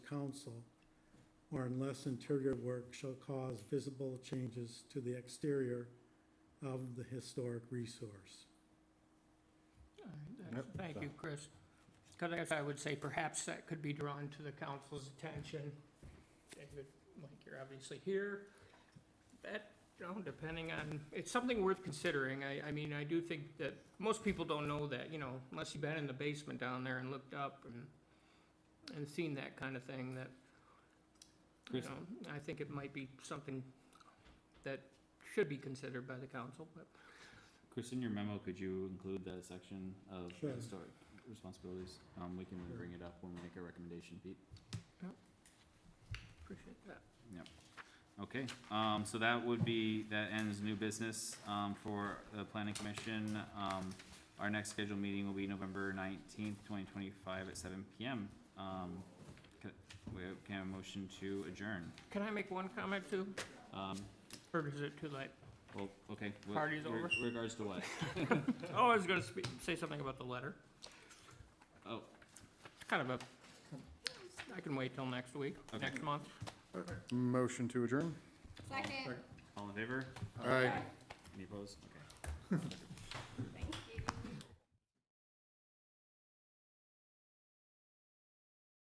council, or unless interior work shall cause visible changes to the exterior of the historic resource. All right, that's- Thank you, Chris. Because I would say perhaps that could be drawn to the council's attention. David, Mike, you're obviously here. That, you know, depending on, it's something worth considering. I, I mean, I do think that most people don't know that, you know, unless you've been in the basement down there and looked up and, and seen that kind of thing, that, you Chris. know, I think it might be something that should be considered by the council, but Chris, in your memo, could you include that section of Sure. historic responsibilities? Um, we can bring it up when we make a recommendation, Pete. appreciate that. Okay, um, so that would be, that ends new business, um, for the planning commission. Um, our next scheduled meeting will be November nineteenth, twenty twenty-five at seven PM. Um, can, we have, can I have a motion to adjourn? Can I make one comment too? Um, Or is it too late? well, okay. wh- Party's reg- over. Regards to what? Oh, I was gonna speak, say something about the letter. Oh, It's kind of a, I can wait till next week, Okay. next month. Motion to adjourn? Second. all in favor? Aye. Any opposed? Okay.